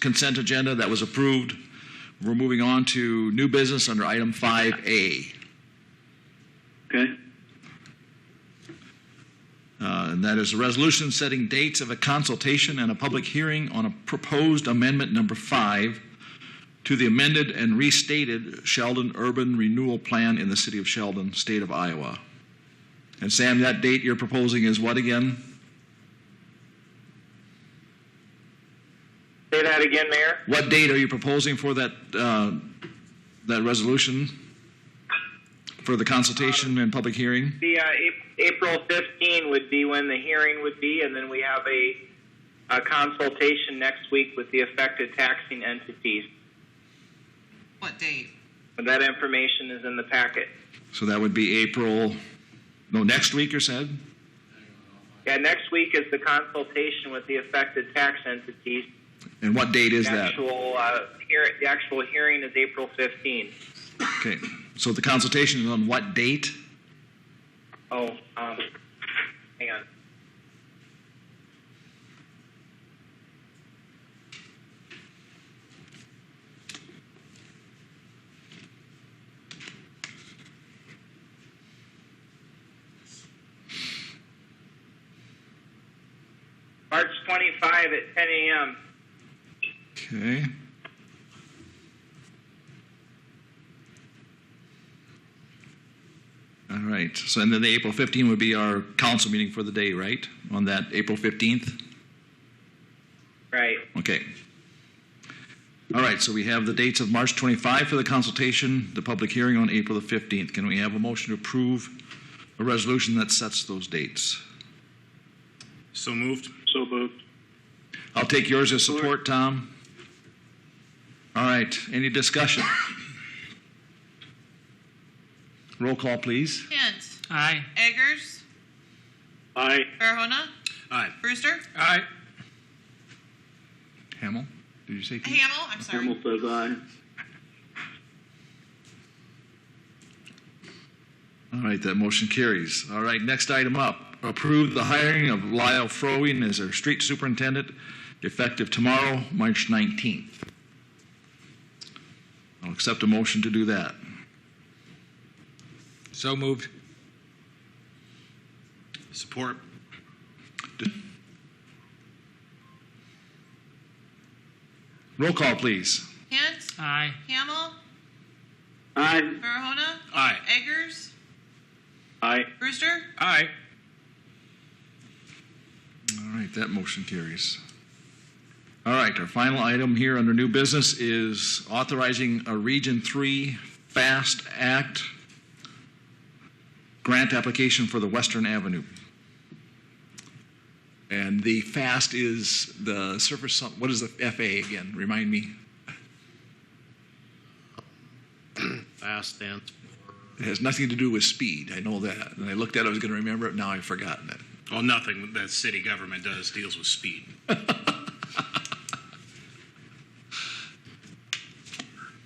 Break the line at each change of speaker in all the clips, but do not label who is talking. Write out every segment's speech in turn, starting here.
consent agenda that was approved. We're moving on to new business under item 5A,
Okay.
uh, and that is a resolution setting dates of a consultation and a public hearing on a proposed amendment number five to the amended and restated Sheldon Urban Renewal Plan in the city of Sheldon, state of Iowa. And Sam, that date you're proposing is what again?
Say that again, Mayor.
What date are you proposing for that, uh, that resolution? For the consultation and public hearing?
The uh, Ap- April 15 would be when the hearing would be, and then we have a, a consultation next week with the affected taxing entities.
What date?
And that information is in the packet.
So that would be April, no, next week, you said?
Yeah, next week is the consultation with the affected tax entities.
And what date is
the
that?
actual uh, hear, the actual hearing is April 15.
Okay, so the consultation is on what date?
Oh, um, hang on. March 25 at 10 a.m.
Okay. All right, so and then the April 15 would be our council meeting for the day, right? On that April 15th?
Right.
Okay. All right, so we have the dates of March 25 for the consultation, the public hearing on April the 15th. Can we have a motion to approve a resolution that sets those dates?
So moved.
So moved.
I'll take yours as support, Tom. All right, any discussion? Roll call, please.
Hint.
Aye.
Eggers.
Aye.
Farahona.
Aye.
Brewster.
Aye.
Hamel, did you say? Keith?
Hamel. I'm sorry.
Hamel says aye.
All right, that motion carries. All right, next item up, approve the hiring of Lyle Frowing as our street superintendent effective tomorrow, March 19th. I'll accept a motion to do that.
So moved.
Support.
Roll call, please.
Hint.
Aye.
Hamel.
Aye.
Farahona.
Aye.
Eggers.
Aye.
Brewster.
Aye.
All right, that motion carries. All right, our final item here under new business is authorizing a Region 3 FAST Act grant application for the Western Avenue. And the FAST is the surface, some- what is the FA again? Remind me.
Fast stance.
It has nothing to do with speed, I know that. And I looked at it, I was going to remember it, now I've forgotten it.
Well, nothing that city government does deals with speed.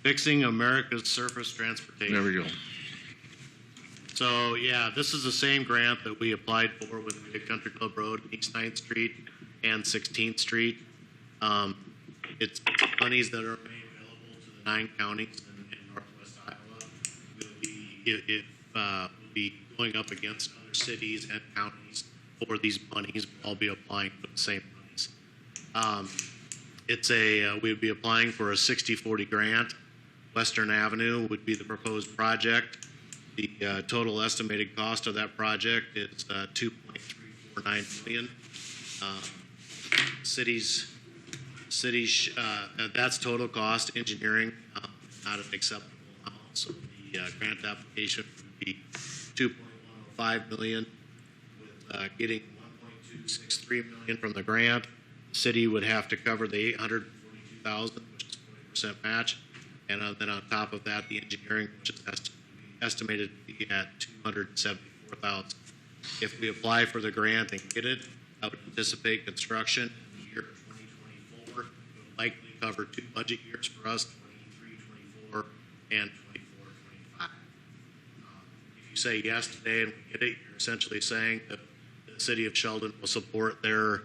Fixing America's Surface
There
Transportation.
we go.
So, yeah, this is the same grant that we applied for with the Country Club Road, East Ninth Street, and Sixteenth Street. Um, It's monies that are made available to the nine counties in in northwest Iowa. We'll be, if, if, uh, we'll be going up against other cities and counties for these monies. We'll all be applying for the same monies. Um, It's a, uh, we'd be applying for a 60/40 grant. Western Avenue would be the proposed project. The uh, total estimated cost of that project is uh, 2.349 million. Um, Cities, cities, uh, that's total cost, engineering, um, not an acceptable amount. So the uh, grant application would be 2.105 million with uh, getting 1.263 million from the grant. the City would have to cover the 842,000, which is 40% match. And uh, then on top of that, the engineering, which is est- estimated to be at 274,000. If we apply for the grant and get it, I would anticipate construction in the year 2024 would likely cover two budget years for us, 23, 24, and 24, 25 if you say yes today and we get it, you're essentially saying that the city of Sheldon will support their